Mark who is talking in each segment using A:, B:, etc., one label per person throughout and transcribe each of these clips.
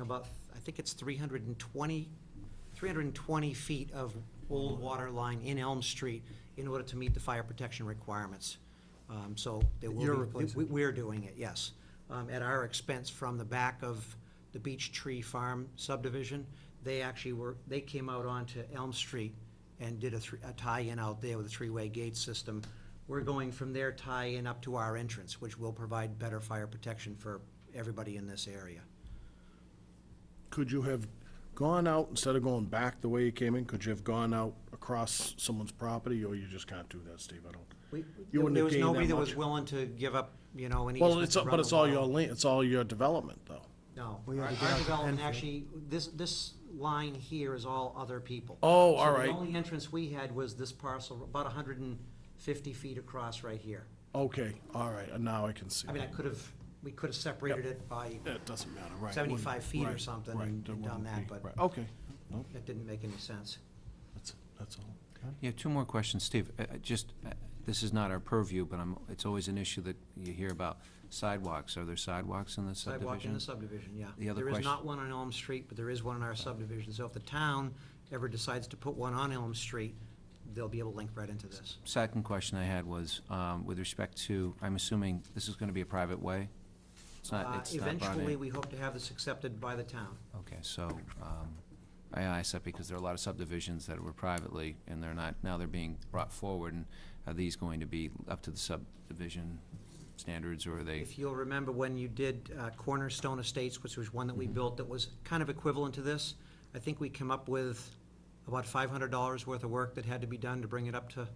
A: about, I think it's 320, 320 feet of old water line in Elm Street in order to meet the fire protection requirements. Um, So there will be.
B: You're replacing.
A: we- We're doing it, yes, um, at our expense from the back of the Beech Tree Farm subdivision. They actually were, they came out onto Elm Street and did a thr- a tie-in out there with a three-way gate system. We're going from their tie-in up to our entrance, which will provide better fire protection for everybody in this area.
B: Could you have gone out, instead of going back the way you came in, could you have gone out across someone's property, or you just can't do that, Steve? I
A: We-
B: don't. You wouldn't
A: There
B: have
A: was
B: gained that
A: nobody that
B: much.
A: was willing to give up, you know, an easement
B: Well, it's,
A: to run
B: but it's
A: the
B: all
A: wall.
B: your land, it's all your development, though.
A: No,
C: We
A: our
C: had to get
A: our
C: out to
A: development
C: Enfield.
A: actually, this, this line here is all other people.
B: Oh, all
A: So
B: right.
A: the only entrance we had was this parcel, about hundred and fifty feet across right here.
B: Okay, all right, and now I can see.
A: I mean, I
B: it.
A: could have, we could have separated it by,
B: It doesn't matter, right. it wouldn't-
A: 75 feet or
B: right,
A: something
B: right,
A: and
B: it
A: done
B: wouldn't
A: that,
B: be-
A: but-
B: right, Okay, no,
A: that didn't make any sense.
B: that's, that's all.
D: Yeah, two more questions, Steve. Uh, uh, Just, uh, this is not our purview, but I'm, it's always an issue that you hear about sidewalks. Are there sidewalks in the subdivision?
A: Sidewalk in the subdivision, yeah.
D: The other
A: There is
D: question-
A: not one on Elm Street, but there is one in our subdivision, so if the town ever decides to put one on Elm Street, they'll be able to link right into this.
D: Second question I had was, um, with respect to, I'm assuming this is gonna be a private way? It's not,
A: Uh,
D: it's not brought in?
A: Eventually, we hope to have this accepted by the town.
D: Okay, so, um, I asked that because there are a lot of subdivisions that were privately, and they're not, now they're being brought forward, and are these going to be up to the subdivision standards, or are they?
A: If you'll remember when you did uh, Cornerstone Estates, which was one that we
D: Mm-hmm.
A: built that was kind of equivalent to this, I think we came up with about five hundred dollars worth of work that had to be done to bring it up to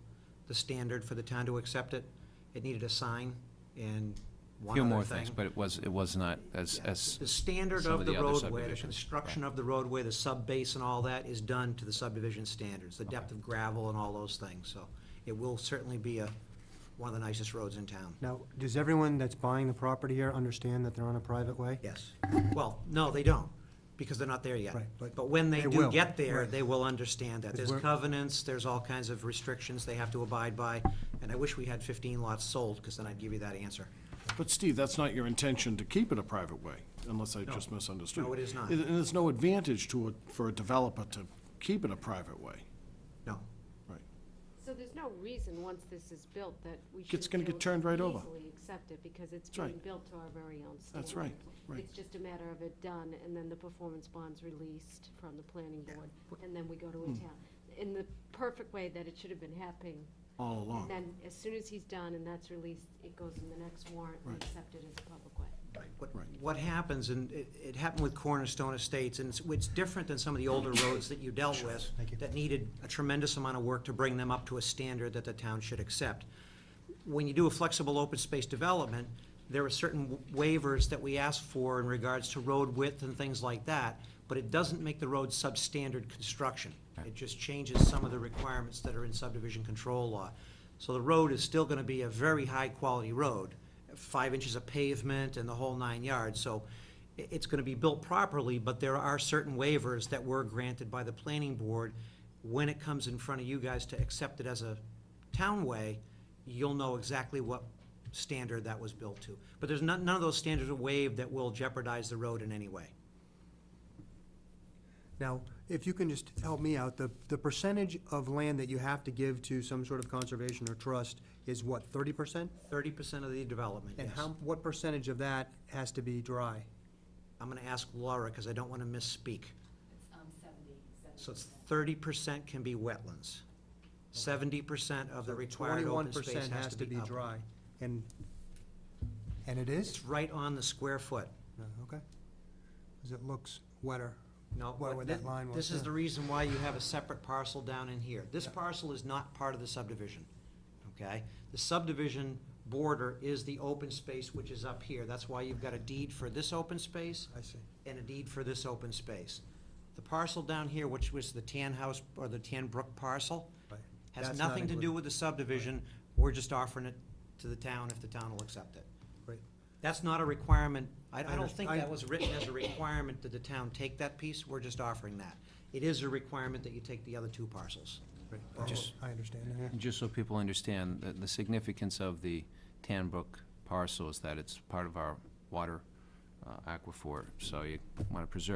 A: the standard for the town to accept it. It needed a sign and one
D: Few more
A: other
D: things,
A: thing.
D: but it was, it was not as,
A: Yeah.
D: as.
A: The standard
D: some
A: of the
D: other
A: roadway, the
D: subdivisions.
A: construction
D: Right.
A: of the roadway, the subbase and all that is done to the subdivision standards, the depth of gravel and all those things, so it will certainly be a, one of the nicest roads in town.
C: Now, does everyone that's buying the property here understand that they're on a private way?
A: Yes. Well, no, they don't, because they're not there yet.
C: Right, but
A: But when they
C: they
A: do
C: will,
A: get there,
C: right.
A: they will understand that.
C: Because
A: There's
C: we're-
A: covenants, there's all kinds of restrictions they have to abide by, and I wish we had fifteen lots sold, because then I'd give you that answer.
B: But Steve, that's not your intention to keep it a private way, unless I just misunderstood.
A: No, it is not.
B: And and there's no advantage to it, for a developer to keep it a private way,
A: No.
B: right?
E: So there's no reason, once this is built, that we should.
B: It's gonna get turned right over.
E: Easily accept it, because it's
B: That's right.
E: being built to our very own standard.
B: That's right, right.
E: It's just a matter of it done, and then the performance bond's released from the planning board, and then we go to
B: Mm.
E: a town. In the perfect way that it should have been happening.
B: All along.
E: And then, as soon as he's done and that's released, it goes in the next warrant and
B: Right.
E: accepted as a public way.
A: What,
B: Right.
A: what happens, and it, it happened with Cornerstone Estates, and it's, it's different than some of the older roads that you dealt with, that needed a tremendous amount of work to bring them up to a standard that the town should accept. When you do a flexible open space development, there are certain waivers that we ask for in regards to road width and things like that, but it doesn't make the road substandard construction. It just changes some of the requirements that are in subdivision control law. So the road is still gonna be a very high-quality road, five inches of pavement and the whole nine yards, so i- it's gonna be built properly, but there are certain waivers that were granted by the planning board. When it comes in front of you guys to accept it as a townway, you'll know exactly what standard that was built to. But there's none, none of those standards are waived that will jeopardize the road in any way.
C: Now, if you can just help me out, the, the percentage of land that you have to give to some sort of conservation or trust is what, thirty percent?
A: Thirty percent of the development,
C: And
A: yes.
C: how, what percentage of that has to be dry?
A: I'm gonna ask Laura, because I don't wanna misspeak.
F: It's, um, seventy, seventy.
A: So it's thirty percent can be wetlands. Seventy percent of the required
C: Twenty-one
A: open space
C: percent
A: has to be up.
C: dry, and, and it is?
A: It's right on the square foot.
C: No, Okay. Because it looks wetter.
A: No,
C: Where-
A: what
C: where
A: thi-
C: that line was,
A: This is
C: yeah.
A: the reason why you have a separate parcel down in here. This parcel is not part of the subdivision, okay? The subdivision border is the open space which is up here. That's why you've got a deed for this open space
C: I see.
A: and a deed for this open space. The parcel down here, which was the Tan House or the Tan Brook parcel,
C: Right.
A: has
C: That's not
A: nothing to do
C: included.
A: with the subdivision. We're just offering it to the town if the town will accept it.
C: Great.
A: That's not a requirement, I, I don't
C: underst-
A: think
C: I-
A: that was written as a requirement that the town take that piece, we're just offering that. It is a requirement that you take the other two parcels.
C: Great.
D: I just-
C: I understand, yeah.
D: Just so people understand, the, the significance of the Tanbrook parcel is that it's part of our water uh, aquifer, so you want to preserve